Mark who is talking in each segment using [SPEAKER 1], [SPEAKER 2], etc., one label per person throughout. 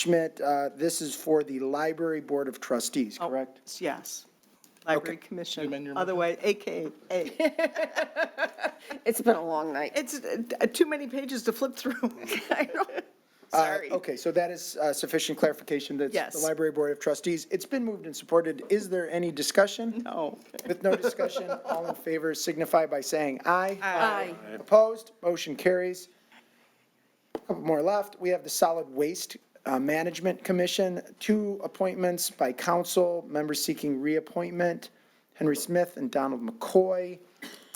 [SPEAKER 1] Schmidt, uh, this is for the Library Board of Trustees,
[SPEAKER 2] Oh,
[SPEAKER 1] correct?
[SPEAKER 2] Yes. Library
[SPEAKER 3] amend your
[SPEAKER 2] Commission,
[SPEAKER 3] motion?
[SPEAKER 2] otherwise, AKA.
[SPEAKER 4] It's been a long night.
[SPEAKER 2] It's uh, too many pages to flip through.
[SPEAKER 4] I know.
[SPEAKER 1] Uh,
[SPEAKER 4] Sorry.
[SPEAKER 1] Okay, so that is uh, sufficient clarification. That's
[SPEAKER 2] Yes.
[SPEAKER 1] The Library Board of Trustees. It's been moved and supported. Is there any discussion?
[SPEAKER 2] No.
[SPEAKER 1] With no discussion, all in favor signify by saying aye.
[SPEAKER 4] Aye.
[SPEAKER 1] Opposed, motion carries. Couple more left. We have the Solid Waste uh, Management Commission, two appointments by council, members seeking reappointment, Henry Smith and Donald McCoy.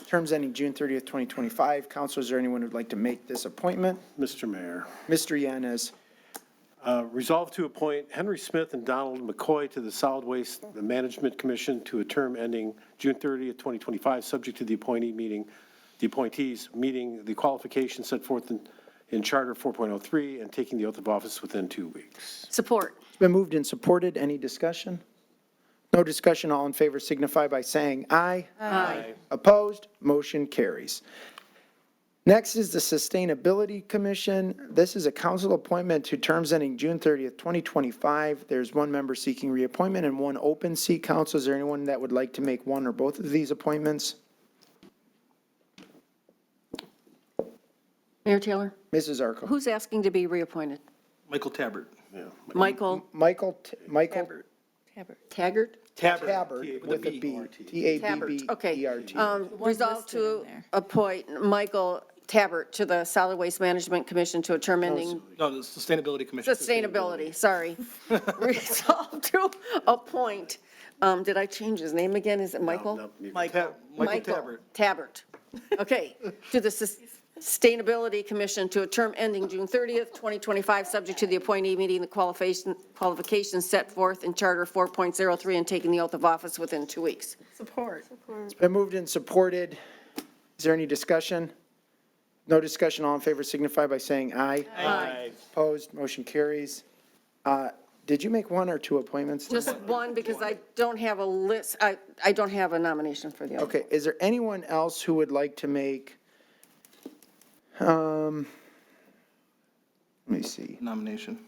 [SPEAKER 1] Terms ending June 30th, 2025. Council, is there anyone who'd like to make this appointment?
[SPEAKER 3] Mr. Mayor,
[SPEAKER 1] Mr. Yanez,
[SPEAKER 3] uh, resolve to appoint Henry Smith and Donald McCoy to the Solid Waste Management Commission to a term ending June 30th, 2025, subject to the appointee meeting, the appointees meeting the qualifications set forth in, in Charter 4.03 and taking the oath of office within two weeks.
[SPEAKER 4] Support.
[SPEAKER 1] it's been moved and supported. Any discussion? No discussion, all in favor signify by saying aye.
[SPEAKER 3] Aye.
[SPEAKER 1] Opposed? Motion carries. Next is the Sustainability Commission. This is a council appointment to terms ending June 30th, 2025. There's one member seeking reappointment and one open seat. Council, is there anyone that would like to make one or both of these appointments?
[SPEAKER 4] Mayor Taylor,
[SPEAKER 1] Mrs. Arco.
[SPEAKER 4] who's asking to be reappointed?
[SPEAKER 5] Michael Tabbert.
[SPEAKER 4] Michael
[SPEAKER 1] Michael, T- Michael
[SPEAKER 4] Taggart?
[SPEAKER 1] Tabbert with a
[SPEAKER 5] E
[SPEAKER 1] B. E
[SPEAKER 4] Tabbert, okay.
[SPEAKER 1] T-A-B-B-E-R-T.
[SPEAKER 4] Um, Resolve to appoint Michael Tabbert to the Solid Waste Management Commission to a term ending
[SPEAKER 5] No, the Sustainability Commission.
[SPEAKER 4] sustainability, sorry. Resolve to appoint, um, did I change his name again? Is it Michael?
[SPEAKER 5] Michael. Michael Tabbert.
[SPEAKER 4] Tabbert. Okay, to the Sus- Sustainability Commission to a term ending June 30th, 2025, subject to the appointee meeting the qualification, qualifications set forth in Charter 4.03 and taking the oath of office within two weeks.
[SPEAKER 2] Support.
[SPEAKER 1] It's been moved and supported. Is there any discussion? No discussion, all in favor signify by saying aye. Aye. Opposed, motion carries. Uh, Did you make one or two appointments?
[SPEAKER 4] Just one, because I don't have a list, I, I don't have a nomination for the other.
[SPEAKER 1] Okay, is there anyone else who would like to make? Um, Let me see.
[SPEAKER 5] Nomination.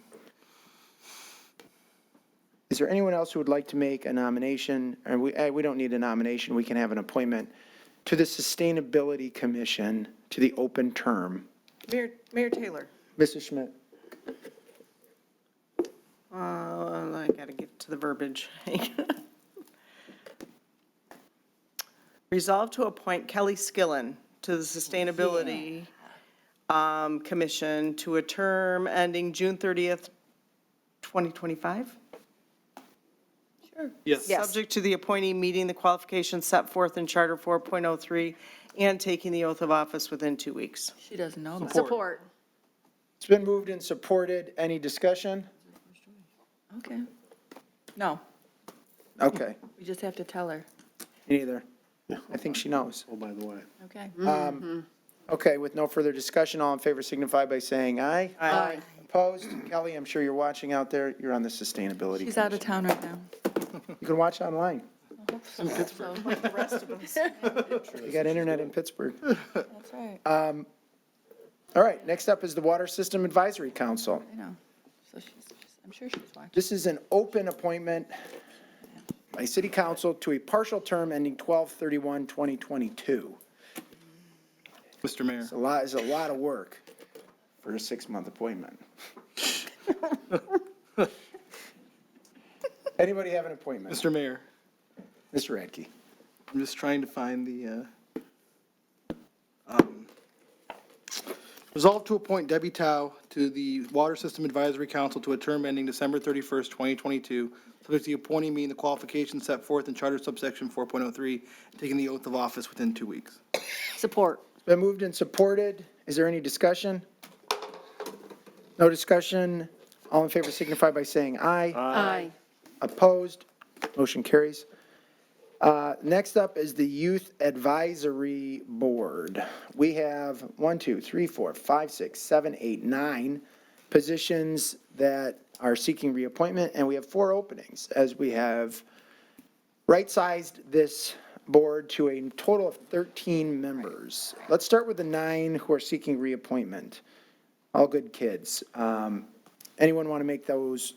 [SPEAKER 1] Is there anyone else who would like to make a nomination? And we, eh, we don't need a nomination, we can have an appointment to the Sustainability Commission to the open term.
[SPEAKER 2] Mayor, Mayor Taylor.
[SPEAKER 1] Mrs. Schmidt?
[SPEAKER 2] Uh, I gotta get to the verbiage. Resolve to appoint Kelly Skillen to the Sustainability um, Commission to a term ending June 30th, 2025?
[SPEAKER 5] Yes.
[SPEAKER 2] Subject to the appointee meeting the qualifications set forth in Charter 4.03 and taking the oath of office within two weeks.
[SPEAKER 6] She doesn't know about it.
[SPEAKER 4] Support.
[SPEAKER 1] It's been moved and supported. Any discussion?
[SPEAKER 6] Okay. No,
[SPEAKER 1] Okay,
[SPEAKER 6] we just have to tell her.
[SPEAKER 1] me neither. I think she knows.
[SPEAKER 3] Oh, by the way.
[SPEAKER 6] Okay.
[SPEAKER 1] Okay, with no further discussion, all in favor signify by saying aye.
[SPEAKER 4] Aye.
[SPEAKER 1] Opposed? Kelly, I'm sure you're watching out there. You're on the Sustainability
[SPEAKER 6] She's out
[SPEAKER 1] Commission.
[SPEAKER 6] of town right now.
[SPEAKER 1] You can watch online.
[SPEAKER 6] That's
[SPEAKER 1] You got internet in Pittsburgh.
[SPEAKER 6] right,
[SPEAKER 1] All right, next up is the Water System Advisory Council.
[SPEAKER 6] I know. So she's, she's- I'm sure she's watching.
[SPEAKER 1] This is an open appointment by city council to a partial term ending 12/31/2022.
[SPEAKER 5] Mr. Mayor.
[SPEAKER 1] It's a lot, it's a lot of work for a six-month appointment. Anybody have an appointment?
[SPEAKER 5] Mr. Mayor,
[SPEAKER 1] Mr. Radke?
[SPEAKER 5] I'm just trying to find the, uh, um, resolve to appoint Debbie Tao to the Water System Advisory Council to a term ending December 31st, 2022, subject to the appointee meeting the qualifications set forth in Charter subsection 4.03, taking the oath of office within two weeks.
[SPEAKER 4] Support.
[SPEAKER 1] Been moved and supported. Is there any discussion? No discussion? All in favor signify by saying aye.
[SPEAKER 4] Aye.
[SPEAKER 1] Opposed? Motion carries. Uh, Next up is the Youth Advisory Board. We have one, two, three, four, five, six, seven, eight, nine positions that are seeking reappointment, and we have four openings, as we have right-sized this board to a total of 13 members. Let's start with the nine who are seeking reappointment. All good kids. Um, Anyone want to make those